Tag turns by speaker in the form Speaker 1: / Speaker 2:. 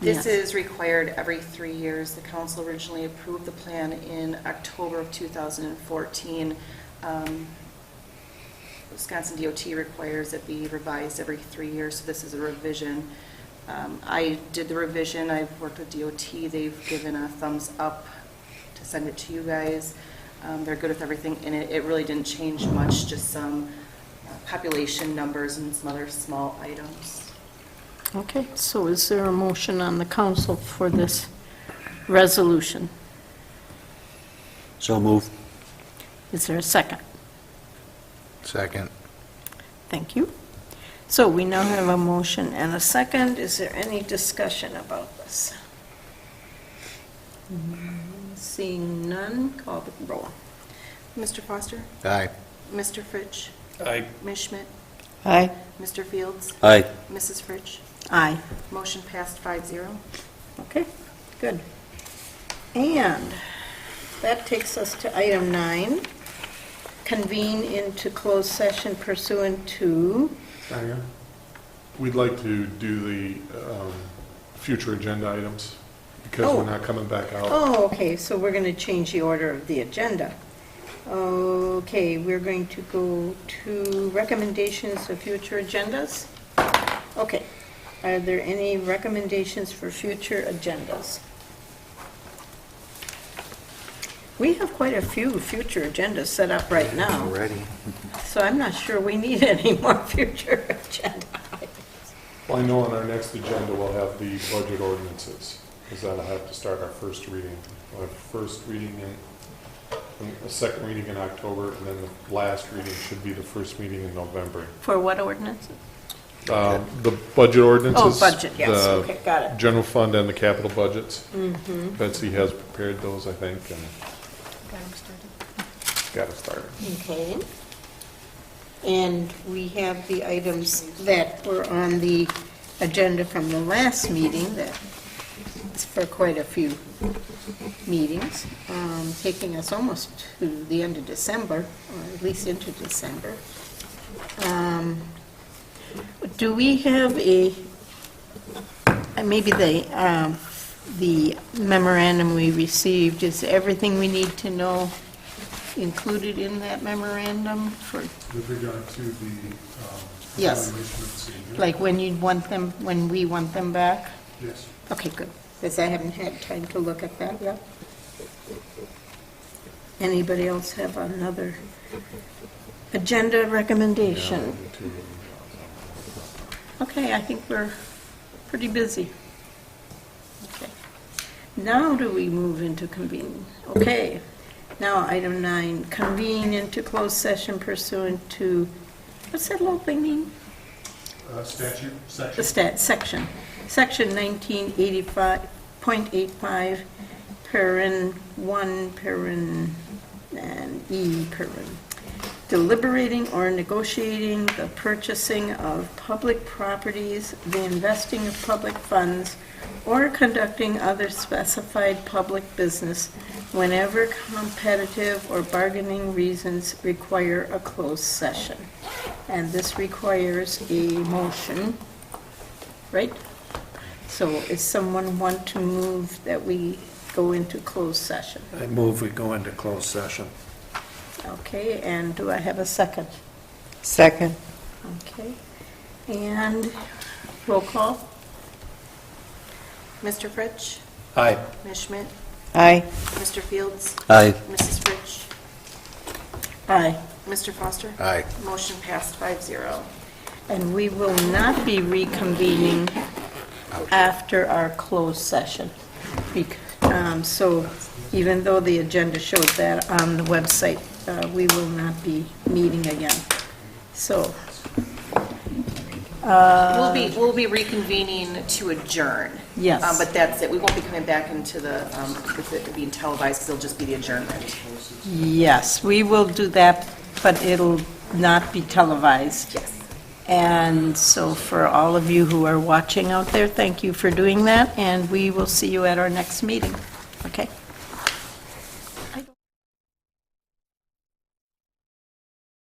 Speaker 1: This
Speaker 2: Yes.
Speaker 1: is required every three years. The council originally approved the plan in October of 2014. Um, Wisconsin DOT requires it be revised every three years, so this is a revision. Um, I did the revision, I've worked with DOT, they've given a thumbs up to send it to you guys. Um, They're good with everything in it, it really didn't change much, just some uh, population numbers and some other small items.
Speaker 2: Okay, so is there a motion on the council for this resolution?
Speaker 3: So move.
Speaker 2: Is there a second?
Speaker 4: Second.
Speaker 2: Thank you. So we now have a motion and a second. Is there any discussion about this? Mm, Seeing none, call the roll.
Speaker 1: Mr. Foster?
Speaker 4: Aye.
Speaker 1: Mr. Fritsch?
Speaker 5: Aye.
Speaker 1: Ms. Schmidt?
Speaker 2: Aye.
Speaker 1: Mr. Fields?
Speaker 3: Aye.
Speaker 1: Mrs. Fritsch?
Speaker 2: Aye.
Speaker 1: Motion passed five zero.
Speaker 2: Okay, good. And that takes us to item nine, convene into closed session pursuant to,
Speaker 6: We'd like to do the um, future agenda items because
Speaker 2: Oh.
Speaker 6: we're not coming back out.
Speaker 2: oh, okay, so we're going to change the order of the agenda. Okay, we're going to go to recommendations of future agendas. Okay, are there any recommendations for future agendas? We have quite a few future agendas set up right now.
Speaker 3: Already.
Speaker 2: So I'm not sure we need any more future agenda items.
Speaker 6: Well, I know on our next agenda, we'll have the budget ordinances, because that'll have to start our first reading. We'll have first reading in, a second reading in October, and then the last reading should be the first meeting in November.
Speaker 2: For what ordinances?
Speaker 6: Um, The budget ordinances.
Speaker 2: Oh, budget, yes,
Speaker 6: the
Speaker 2: okay, Mm-hmm. got it.
Speaker 6: General fund and the capital budgets. Betsy has prepared those, I think, and got it started.
Speaker 2: Okay. And we have the items that were on the agenda from the last meeting, that is for quite a few meetings, um, taking us almost to the end of December, or at least into December. Um, Do we have a, uh, maybe the, um, the memorandum we received, is everything we need to know included in that memorandum for,
Speaker 7: With regard to the um,
Speaker 2: Yes.
Speaker 7: evaluation of the senior?
Speaker 2: like, when you'd want them, when we want them back?
Speaker 7: Yes.
Speaker 2: Okay, good, because I haven't had time to look at that yet. Anybody else have another agenda recommendation? Okay, I think we're pretty busy. Okay. Now do we move into convene? Okay. Now, item nine, convene into closed session pursuant to, what's that little thing mean?
Speaker 7: Uh, Statute,
Speaker 2: The
Speaker 7: section?
Speaker 2: stat, section, section 1985.85, paren 1, paren, and E, paren. Deliberating or negotiating the purchasing of public properties, the investing of public funds, or conducting other specified public business whenever competitive or bargaining reasons require a closed session. And this requires a motion right? So is someone want to move that we go into closed session?
Speaker 3: I move we go into closed session.
Speaker 2: Okay, and do I have a second?
Speaker 8: Second.
Speaker 2: Okay, and roll call?
Speaker 1: Mr. Fritsch?
Speaker 3: Aye.
Speaker 1: Ms. Schmidt?
Speaker 8: Aye.
Speaker 1: Mr. Fields?
Speaker 3: Aye.
Speaker 1: Mrs. Fritsch?
Speaker 2: Aye.
Speaker 1: Mr. Foster?
Speaker 4: Aye.
Speaker 1: Motion passed five zero.
Speaker 2: And we will not be reconvening after our closed session. Bec- um, So even though the agenda showed that on the website, uh, we will not be meeting again. So
Speaker 1: We'll be, we'll be reconvening to adjourn.
Speaker 2: Yes.
Speaker 1: Um, But that's it. We won't be coming back into the, um, with it being televised, 'cause it'll just be the adjournment.
Speaker 2: Yes, we will do that, but it'll not be televised.
Speaker 1: Yes.
Speaker 2: And so for all of you who are watching out there, thank you for doing that, and we will see you at our next meeting.